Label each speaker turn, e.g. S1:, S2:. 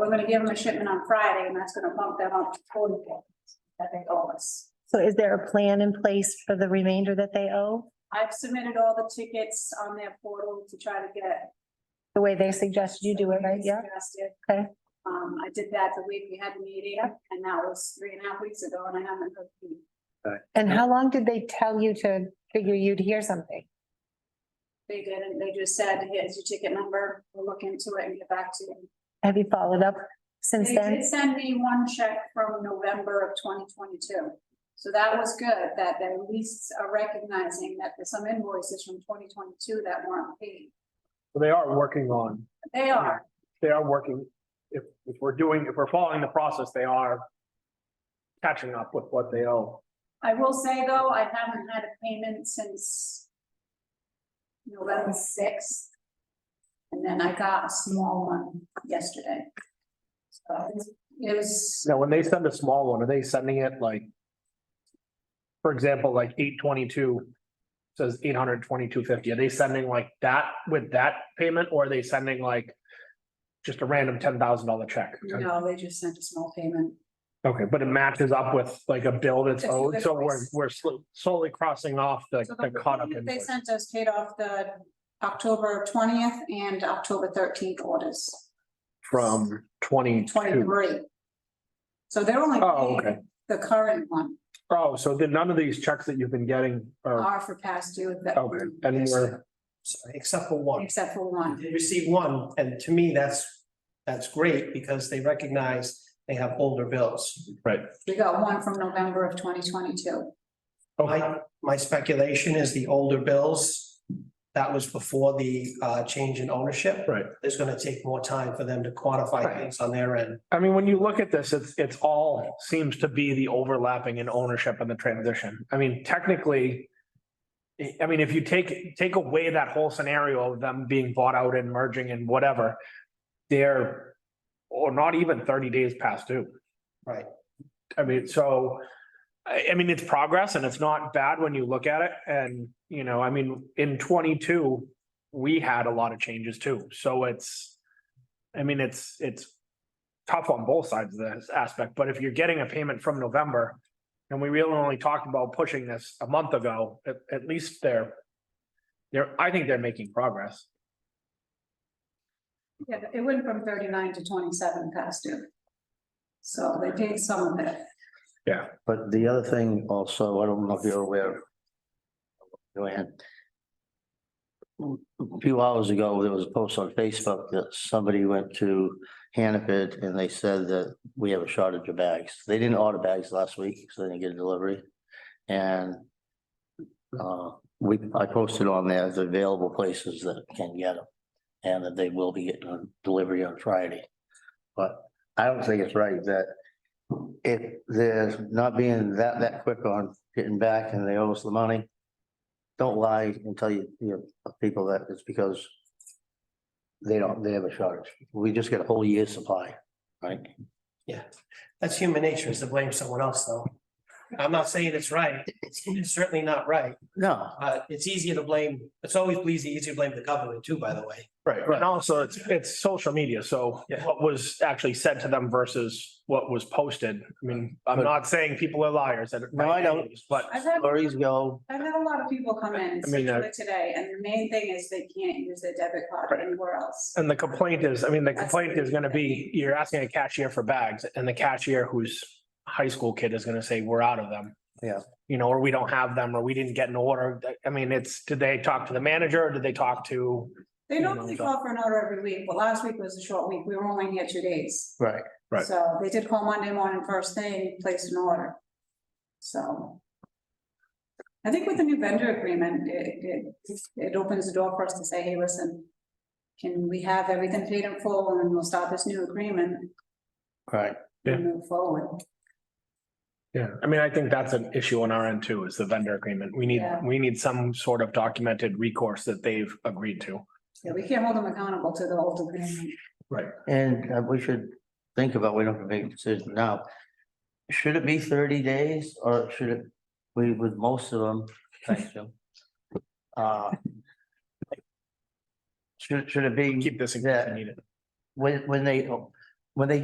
S1: We're gonna give them a shipment on Friday and that's gonna bump them up to forty days that they owe us.
S2: So is there a plan in place for the remainder that they owe,
S1: I've submitted all the tickets on their portal to try to get.
S2: the way they suggested you do it, right? Yeah,
S1: Suggested.
S2: Okay.
S1: Um, I did that the week we had the meeting and that was three and a half weeks ago and I haven't heard. from them.
S2: and how long did they tell you to figure you'd hear something?
S1: They didn't, they just said, here's your ticket number, we'll look into it and get back to you.
S2: Have you followed up since
S1: They
S2: then?
S1: did send me one check from November of twenty twenty-two. So that was good, that they at least are recognizing that there's some invoices from twenty twenty-two that weren't paid.
S3: Well, They are working on,
S1: They are,
S3: they are working, if, if we're doing, if we're following the process, they are catching up with what they owe.
S1: I will say though, I haven't had a payment since November sixth. And then I got a small one yesterday. So it was,
S3: Now, when they send a small one, are they sending it like, for example, like eight twenty-two says eight hundred twenty-two fifty, are they sending like that with that payment, or are they sending like just a random ten thousand dollar check?
S1: no, they just sent a small payment.
S3: Okay, but it matches up with like a bill that's
S1: That's
S3: owed, so we're,
S1: invoice.
S3: we're slo- slowly crossing off the,
S1: So
S3: the caught up
S1: payment They
S3: invoice.
S1: sent us paid off the October twentieth and October thirteenth orders,
S3: From twenty-two.
S1: twenty-three. So they're only
S3: Oh, okay.
S1: paying the current one,
S3: Oh, so then none of these checks that you've been getting are,
S1: are for past due that,
S3: Oh. okay, and we're,
S4: Sorry, except for one.
S1: except for one.
S4: They received one, and to me, that's, that's great because they recognize they have older bills.
S1: We got one from November of twenty twenty-two.
S3: okay,
S4: My, my speculation is the older bills, that was before the uh change in ownership.
S3: right.
S4: It's gonna take more time for them to quantify
S3: Right.
S4: things on their end.
S3: I mean, when you look at this, it's, it's all seems to be the overlapping in ownership and the transition. I mean, technically. I- I mean, if you take, take away that whole scenario of them being bought out and merging and whatever, they're, or not even thirty days past due.
S4: Right.
S3: I mean, so, I, I mean, it's progress and it's not bad when you look at it. And, you know, I mean, in twenty-two, we had a lot of changes too. So it's, I mean, it's, it's tough on both sides of this aspect, but if you're getting a payment from November, and we really only talked about pushing this a month ago, at, at least they're, they're, I think they're making progress.
S1: Yeah, it went from thirty-nine to twenty-seven past due. So they paid some of it.
S5: But the other thing also, I don't know if you're aware. Joanne. A few hours ago, there was a post on Facebook that somebody went to Hannaford and they said that we have a shortage of bags. They didn't order bags last week, so they didn't get a delivery. And uh, we, I posted on there the available places that can get them and that they will be getting a delivery on Friday. But I don't think it's right that if there's not being that, that quick on getting back and they owe us the money, don't lie and tell you, you know, people that it's because they don't, they have a shortage. We just get a whole year's supply, right?
S4: Yeah, that's human nature is to blame someone else, though. I'm not saying it's right. It's it's certainly not right.
S5: No,
S4: Uh, it's easier to blame, it's always easy, easy to blame the government too, by the way.
S3: Right. And also, it's, it's social media, so
S4: Yeah.
S3: what was actually said to them versus what was posted. I mean, I'm
S5: But-
S3: not saying people are liars. and-
S5: No, I don't.
S3: But
S1: I've had,
S5: stories go,
S1: I've had a lot of people come in,
S3: I mean, uh,
S1: especially today, and the main thing is they can't use their debit card
S3: Right.
S1: anywhere else.
S3: And the complaint is, I mean, the complaint is gonna be, you're asking a cashier for bags and the cashier who's a high school kid is gonna say, we're out of them.
S5: Yeah.
S3: You know, or we don't have them, or we didn't get an order. I mean, it's, did they talk to the manager? or Did they talk to?
S1: They
S3: Yeah,
S1: normally
S3: no,
S1: call for an order every week, but last week was a short week. We were only here two days.
S5: right,
S3: Right.
S1: So they did call Monday morning first thing, placed an order. So. I think with the new vendor agreement, it, it, it opens the door for us to say, hey, listen. Can we have everything paid in full and then we'll start this new agreement
S5: right.
S3: Yeah.
S1: and move forward?
S3: Yeah, I mean, I think that's an issue on our end too, is the vendor agreement. We need,
S1: Yeah.
S3: we need some sort of documented recourse that they've agreed to.
S1: Yeah, we can't hold them accountable to the old agreement.
S5: And uh, we should think about, we don't have to make a decision now. Should it be thirty days or should it, we, with most of them, thanks, Jim. Uh, Should, should it be?
S3: Keep this in case
S5: Yeah.
S3: you need it.
S5: when, when they, when they